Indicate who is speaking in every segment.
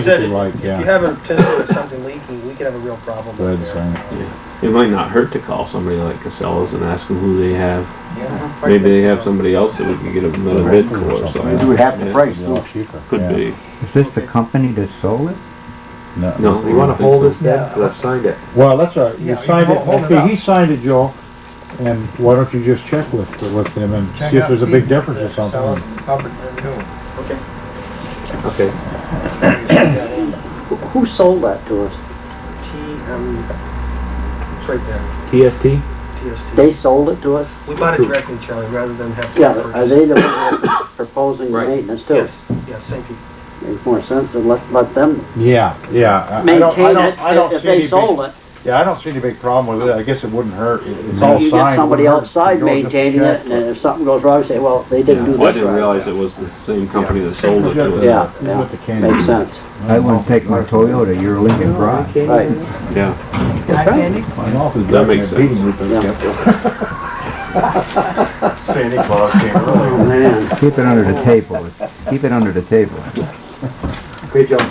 Speaker 1: said,
Speaker 2: you like,
Speaker 1: if you
Speaker 2: yeah.
Speaker 1: have a potential of something leaking, we could have a real problem
Speaker 2: Go
Speaker 1: out
Speaker 2: ahead,
Speaker 1: there.
Speaker 3: It might not hurt to call somebody like Casella's and ask them who they have.
Speaker 1: Yeah.
Speaker 3: Maybe they have somebody else that we could get another bid for, so.
Speaker 4: Maybe we have the
Speaker 3: Yeah,
Speaker 4: price
Speaker 2: a
Speaker 4: too.
Speaker 2: lot cheaper.
Speaker 3: Could be.
Speaker 5: Is this the company that sold it?
Speaker 2: No.
Speaker 3: No, you wanna hold this
Speaker 1: down?
Speaker 3: Let's sign it.
Speaker 2: Well, that's all right. You
Speaker 1: Yeah, you
Speaker 2: signed it,
Speaker 1: hold- hold it
Speaker 2: okay, he
Speaker 1: up.
Speaker 2: signed it, Joe, and why don't you just check with, with him and see if there's a big difference or something.
Speaker 1: Okay.
Speaker 3: Okay.
Speaker 4: Who sold that to us?
Speaker 1: T, um, it's right there,
Speaker 3: TST?
Speaker 4: They
Speaker 1: TST.
Speaker 4: sold it to us?
Speaker 1: We bought it directly, Charlie, rather than have. to
Speaker 4: Yeah,
Speaker 1: purchase.
Speaker 4: are they the ones that are proposing the
Speaker 3: Right.
Speaker 4: maintenance too?
Speaker 1: Yes, yes, thank you.
Speaker 4: Makes more sense to let, let them
Speaker 2: Yeah, yeah. I- I don't- I
Speaker 4: maintain
Speaker 2: don't-
Speaker 4: it
Speaker 2: I don't
Speaker 4: if
Speaker 2: see any
Speaker 4: they
Speaker 2: big-
Speaker 4: sold it.
Speaker 2: Yeah, I don't see any big problem with it. I guess it wouldn't hurt. It- It's all signed.
Speaker 4: You get somebody
Speaker 2: wouldn't hurt.
Speaker 4: outside
Speaker 2: Joe, just
Speaker 4: maintaining
Speaker 2: check.
Speaker 4: it and if something goes wrong, say, well, they didn't do this
Speaker 3: I didn't
Speaker 4: right.
Speaker 3: realize it was the same company that sold it to us.
Speaker 4: Yeah,
Speaker 2: Who's
Speaker 4: yeah.
Speaker 2: with the candy?
Speaker 4: Makes sense.
Speaker 5: I wouldn't take my Toyota, your Lincoln Rock.
Speaker 4: Right.
Speaker 3: Yeah,
Speaker 2: My mouth is
Speaker 3: That
Speaker 2: back in
Speaker 3: makes
Speaker 2: the beating
Speaker 3: sense.
Speaker 2: with
Speaker 4: Yeah.
Speaker 2: it.
Speaker 6: Santa Claus came early.
Speaker 4: Oh, man.
Speaker 5: Keep it under the table, keep it under the table.
Speaker 2: Good job.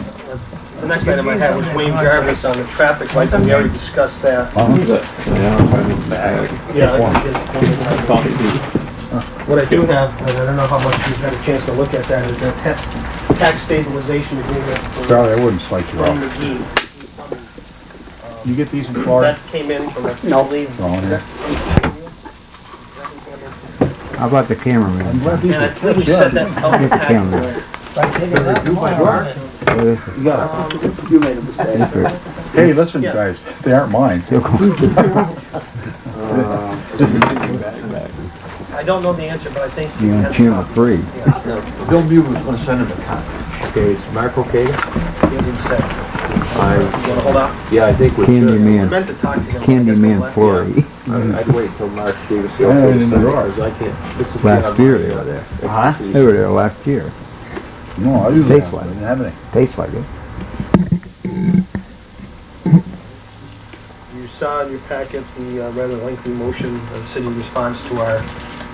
Speaker 1: The next item I have was Wayne Jarvis on the traffic lights, and we already discussed that.
Speaker 3: yeah.
Speaker 1: Yeah. I can get- What I do have, and I don't know how much you've had a chance to look at that, is a ta- tax stabilization agreement for
Speaker 2: Charlie, I wouldn't slide you
Speaker 1: Tom
Speaker 2: off.
Speaker 1: McGee.
Speaker 2: You get these in
Speaker 1: That
Speaker 2: Florida?
Speaker 1: came in from, I
Speaker 4: No.
Speaker 1: believe. is
Speaker 2: Wrong.
Speaker 1: that-
Speaker 5: How about the cameraman?
Speaker 1: And I think we set that out in the packet.
Speaker 5: What is it?
Speaker 4: You made a mistake.
Speaker 5: Mr.
Speaker 2: Hey, listen,
Speaker 1: Yeah.
Speaker 2: guys, they aren't mine.
Speaker 1: I don't know the answer, but I think.
Speaker 5: You're on channel three.
Speaker 6: Bill Mew was gonna send him a copy.
Speaker 3: Okay, it's Mark okay?
Speaker 1: I.
Speaker 3: I,
Speaker 1: You wanna hold out?
Speaker 3: yeah, I think we
Speaker 5: Candy
Speaker 3: should.
Speaker 1: I
Speaker 5: man,
Speaker 1: meant to talk to him.
Speaker 5: Candy man Flory.
Speaker 3: I- I'd wait till Mark gave us the
Speaker 2: Yeah,
Speaker 3: okay
Speaker 2: in
Speaker 3: to
Speaker 2: the
Speaker 3: sign it,
Speaker 2: drawer.
Speaker 3: cause I can't. this is
Speaker 5: Last
Speaker 3: beyond
Speaker 5: year
Speaker 3: my-
Speaker 5: they were there.
Speaker 3: expertise.
Speaker 5: They were there last year.
Speaker 2: No, I didn't
Speaker 5: Take
Speaker 2: have,
Speaker 5: one.
Speaker 2: I didn't have any.
Speaker 5: Tastes like it.
Speaker 1: You saw in your packet the uh, rather lengthy motion, the city response to our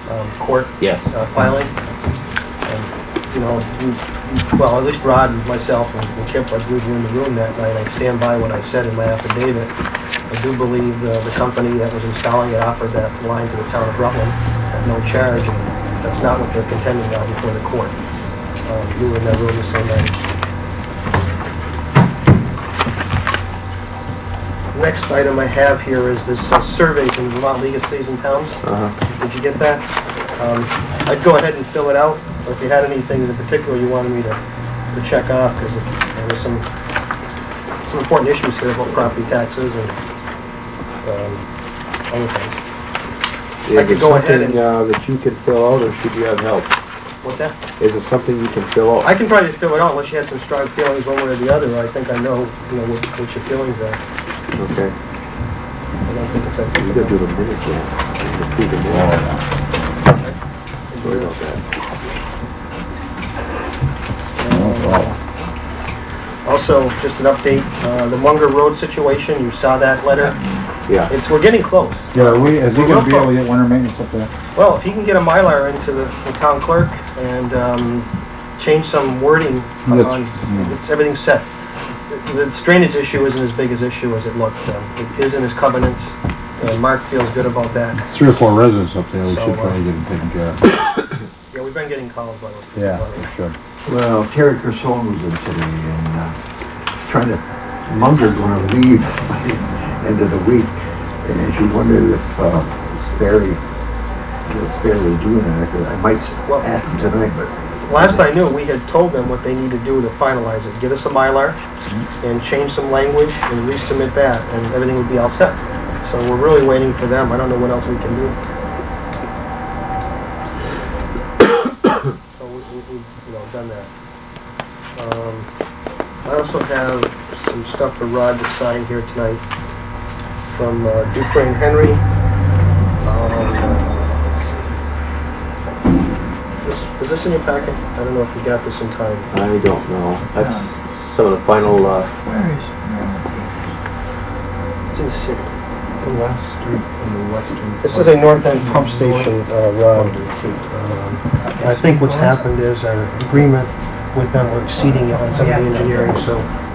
Speaker 1: um, court
Speaker 3: Yes.
Speaker 1: uh, filing. And, You know, we- well, at least Rod and myself and and Chip, I believe were in the room that night. I stand by what I said in my affidavit. I do believe uh, the company that was installing it offered that line to the town of Rutland at no charge. and That's not what they're contending now before the court. Um, You were in that room the same night. Next item I have here is this uh, survey from the Vermont League of Cities and Towns. Did you get that? Um, I'd go ahead and fill it out, or if you had any things in particular you wanted me to, to check off, because there was some, some important issues here about property taxes and, um, other things.
Speaker 3: Is
Speaker 1: I could
Speaker 3: it
Speaker 1: go ahead
Speaker 3: something, uh, that you can fill out or should you have help?
Speaker 1: What's that?
Speaker 3: Is it something you can fill out?
Speaker 1: I can probably just fill it out unless you had some strong feelings one way or the other. I think I know, you know, what, what your feelings are.
Speaker 3: Okay.
Speaker 1: I don't think it's that
Speaker 3: You gotta do
Speaker 1: difficult.
Speaker 3: the minutes, yeah. You gotta do the minutes. Sorry about that.
Speaker 1: Also, just an update, uh, the Munger Road situation, you saw that letter?
Speaker 3: Yeah,
Speaker 1: It's, we're getting close.
Speaker 2: Yeah, are we, is he
Speaker 1: We're
Speaker 2: gonna be
Speaker 1: real
Speaker 2: able to get winter maintenance up there?
Speaker 1: Well, if he can get a Mylar into the the town clerk and um, change some wording on,
Speaker 2: That's-
Speaker 1: on- it's, everything's set. The the drainage issue isn't as big as issue as it looked. um, It is in his covenants, and Mark feels good about that.
Speaker 2: Three or four residents up there, we
Speaker 1: So,
Speaker 2: should
Speaker 1: uh,
Speaker 2: probably get them taken care of.
Speaker 1: Yeah, we've been getting calls by those people.
Speaker 2: Yeah, we should.
Speaker 6: Well, Terry Carson was in today and, uh, trying to, Munger's gonna leave by the end of the week. And she wondered if, uh, Sperry, if Sperry was doing it. I said, I might
Speaker 1: Well-
Speaker 6: ask him tonight, but
Speaker 1: Last I knew, we had told them what they need to do to finalize it. Get us a Mylar and change some language and resubmit that, and everything would be all set. So we're really waiting for them. I don't know what else we can do. So we, we- we've, you know, done that. Um, I also have some stuff for Rod to sign here tonight from uh, Dufrain Henry. Um, let's see. This, was this in your packet? I don't know if you got this in time.
Speaker 3: I don't know. That's some of the final, uh,
Speaker 1: It's in the city.
Speaker 6: the last street on the western.
Speaker 1: This is a north end pump station, uh, Rob. Um, I think what's happened is our agreement with them, we're exceeding it on some of the engineering, so